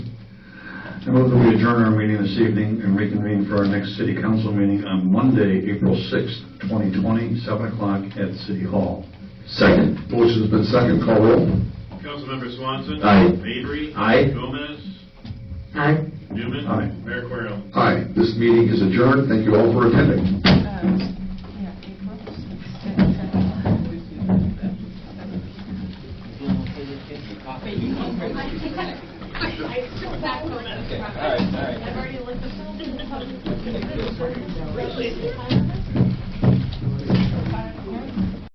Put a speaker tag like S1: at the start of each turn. S1: I move that we adjourn our meeting this evening and reconvene for our next city council meeting on Monday, April 6th, 2020, 7 o'clock at City Hall.
S2: Second.
S3: Motion's been second, call roll.
S4: Councilmember Swanson.
S2: Aye.
S4: Mavry.
S2: Aye.
S4: Gomez.
S2: Aye.
S4: Newman.
S1: Aye.
S4: Mayor Querem.
S3: Aye, this meeting is adjourned, thank you all for attending.
S5: Yeah, April 6th.
S6: Wait, you come first. All right, all right. I've already looked.